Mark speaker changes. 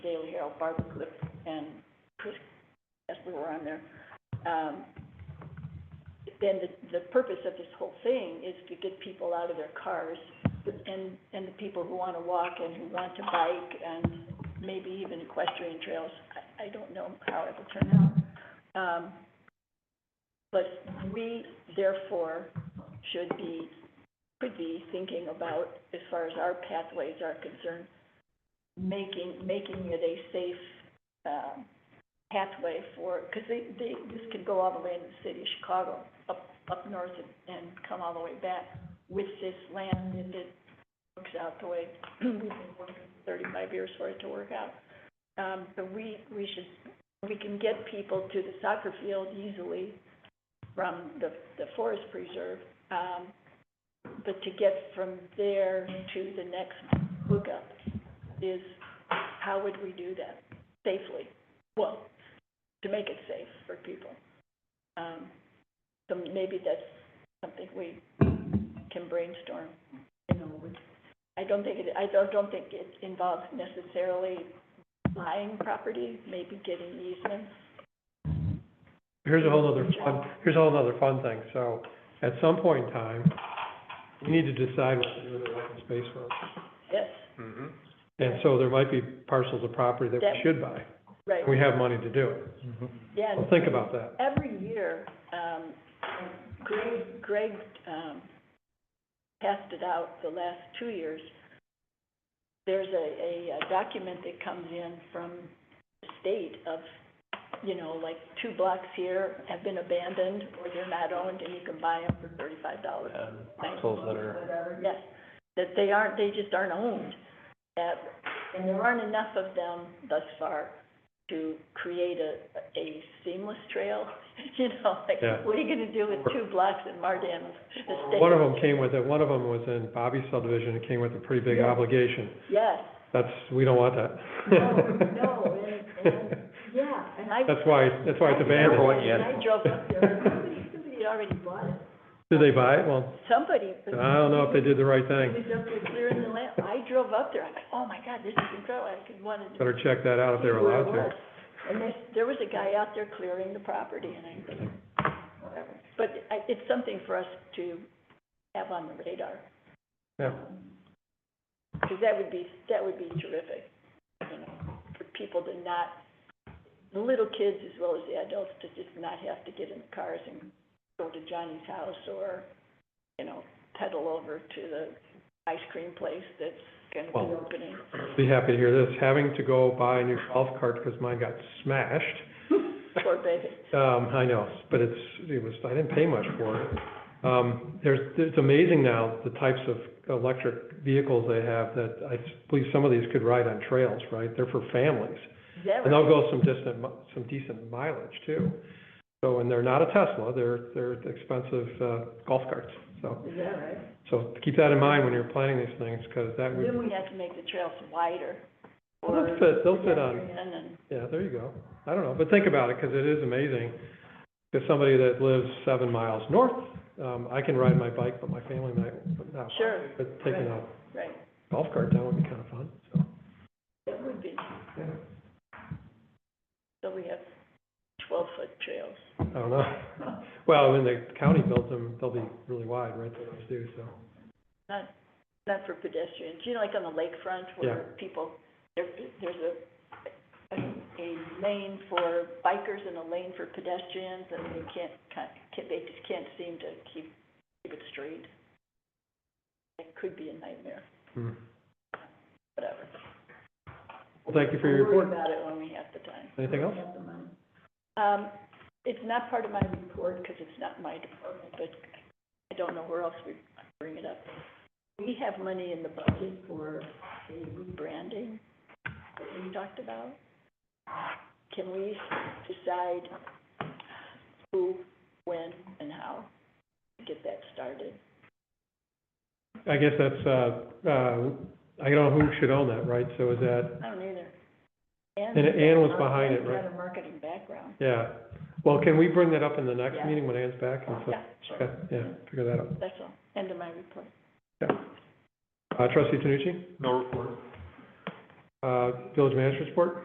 Speaker 1: Lee O'Harrell, Barbara Cliff, and Chris Esper were on there. Um, then the, the purpose of this whole thing is to get people out of their cars and, and the people who wanna walk and who want to bike and maybe even equestrian trails. I, I don't know how it will turn out. Um, but we therefore should be, could be thinking about, as far as our pathways are concerned, making, making it a safe, um, pathway for, because they, they, this could go all the way into the city of Chicago, up, up north and, and come all the way back with this land, if it works out the way we've been working thirty-five years for it to work out. Um, but we, we should, we can get people to the soccer field easily from the, the forest preserve, um, but to get from there to the next hookup is, how would we do that safely? Well, to make it safe for people. Um, so maybe that's something we can brainstorm, you know, with, I don't think it, I don't, don't think it involves necessarily buying property, maybe getting easements.
Speaker 2: Here's a whole other fun, here's a whole other fun thing, so, at some point in time, we need to decide what to do with the open space road.
Speaker 1: Yes,
Speaker 3: Mm-hmm.
Speaker 2: And so there might be parcels of property that we
Speaker 1: That-
Speaker 2: should buy,
Speaker 1: right,
Speaker 2: and we have money to do it.
Speaker 1: yeah.
Speaker 2: Well, think about that.
Speaker 1: Every year, um, Greg, Greg, um, passed it out the last two years. There's a, a document that comes in from the state of, you know, like, two blocks here have been abandoned, or they're not owned, and you can buy them for thirty-five dollars.
Speaker 3: parcels that are-
Speaker 1: Whatever, yes, that they aren't, they just aren't owned, that, and there aren't enough of them thus far to create a, a seamless trail, you know, like,
Speaker 2: Yeah.
Speaker 1: what are you gonna do with two blocks in Mardan Estate?
Speaker 2: One of them came with it, one of them was in Bobby's subdivision, it came with a pretty big
Speaker 1: Yeah.
Speaker 2: obligation.
Speaker 1: Yes,
Speaker 2: That's, we don't want that.
Speaker 1: no, no, and, and, yeah, and I.
Speaker 2: That's why, that's why it's
Speaker 3: Careful what
Speaker 2: abandoned.
Speaker 3: you
Speaker 1: And I drove up there, and somebody, somebody had already bought it,
Speaker 2: Did they buy it? Well,
Speaker 1: somebody.
Speaker 2: I don't know if they did the right
Speaker 1: It
Speaker 2: thing.
Speaker 1: was up there clearing the land, I drove up there, I'm like, oh my God, this is incredible, I could wanted to.
Speaker 2: Better check that out if they were
Speaker 1: see where it
Speaker 2: allowed
Speaker 1: was.
Speaker 2: to.
Speaker 1: And there, there was a guy out there clearing the property, and I, whatever. But I, it's something for us to have on the radar.
Speaker 2: Yeah.
Speaker 1: Because that would be, that would be terrific, you know, for people to not, the little kids as well as the adults to just not have to get in the cars and go to Johnny's house or, you know, pedal over to the ice cream place that's gonna be
Speaker 2: Well,
Speaker 1: opening.
Speaker 2: Be happy to hear this. Having to go buy a new golf cart because mine got smashed.
Speaker 1: Poor baby.
Speaker 2: Um, I know, but it's, it was, I didn't pay much for it. Um, there's, it's amazing now, the types of electric vehicles they have that I believe some of these could ride on trails, right? They're for families.
Speaker 1: Is that
Speaker 2: And
Speaker 1: right?
Speaker 2: they'll go some distant, mi- some decent mileage too. So, and they're not a Tesla, they're, they're expensive, uh, golf carts. So,
Speaker 1: Is that right?
Speaker 2: so keep that in mind when you're planning these things, because that would,
Speaker 1: Then we have to make the trails wider.
Speaker 2: Well, they'll
Speaker 1: for
Speaker 2: fit- they'll fit on-
Speaker 1: pedestrian and-
Speaker 2: yeah, there you go. I don't know, but think about it, because it is amazing. If somebody that lives seven miles north, um, I can ride my bike, but my family might not.
Speaker 1: Sure.
Speaker 2: But taking a
Speaker 1: Right,
Speaker 2: golf cart down would be kind of fun, so.
Speaker 1: that would be,
Speaker 2: yeah,
Speaker 1: so we have twelve-foot trails.
Speaker 2: I don't know. Well, when the county builds them, they'll be really wide, right, they always do, so.
Speaker 1: Not, not for pedestrians, you know, like on the lakefront where people, there, there's a, a a lane for bikers and a lane for pedestrians, and they can't, can't, they just can't seem to keep, keep it straight. It could be a nightmare,
Speaker 2: hmm.
Speaker 1: whatever.
Speaker 2: Well, thank you for your
Speaker 1: We'll worry
Speaker 2: report.
Speaker 1: about it when we have the time.
Speaker 2: Anything else?
Speaker 1: Um, it's not part of my report because it's not my department, but I don't know where else we bring it up. We have money in the budget for the rebranding that we talked about. Can we decide who, when, and how to get that started?
Speaker 2: I guess that's, uh, uh, I don't know who should own that, right? So is that,
Speaker 1: I don't either.
Speaker 2: And Ann was behind it, right?
Speaker 1: Anne's got a marketing background.
Speaker 2: yeah. Well, can we bring that up in the next
Speaker 1: Yeah.
Speaker 2: meeting when Ann's back? And so-
Speaker 1: Yeah, sure,
Speaker 2: Okay, yeah, figure that out.
Speaker 1: that's all, end of my report.
Speaker 2: Uh, trustee Tanucci,
Speaker 3: No report.
Speaker 2: uh, village manager's report?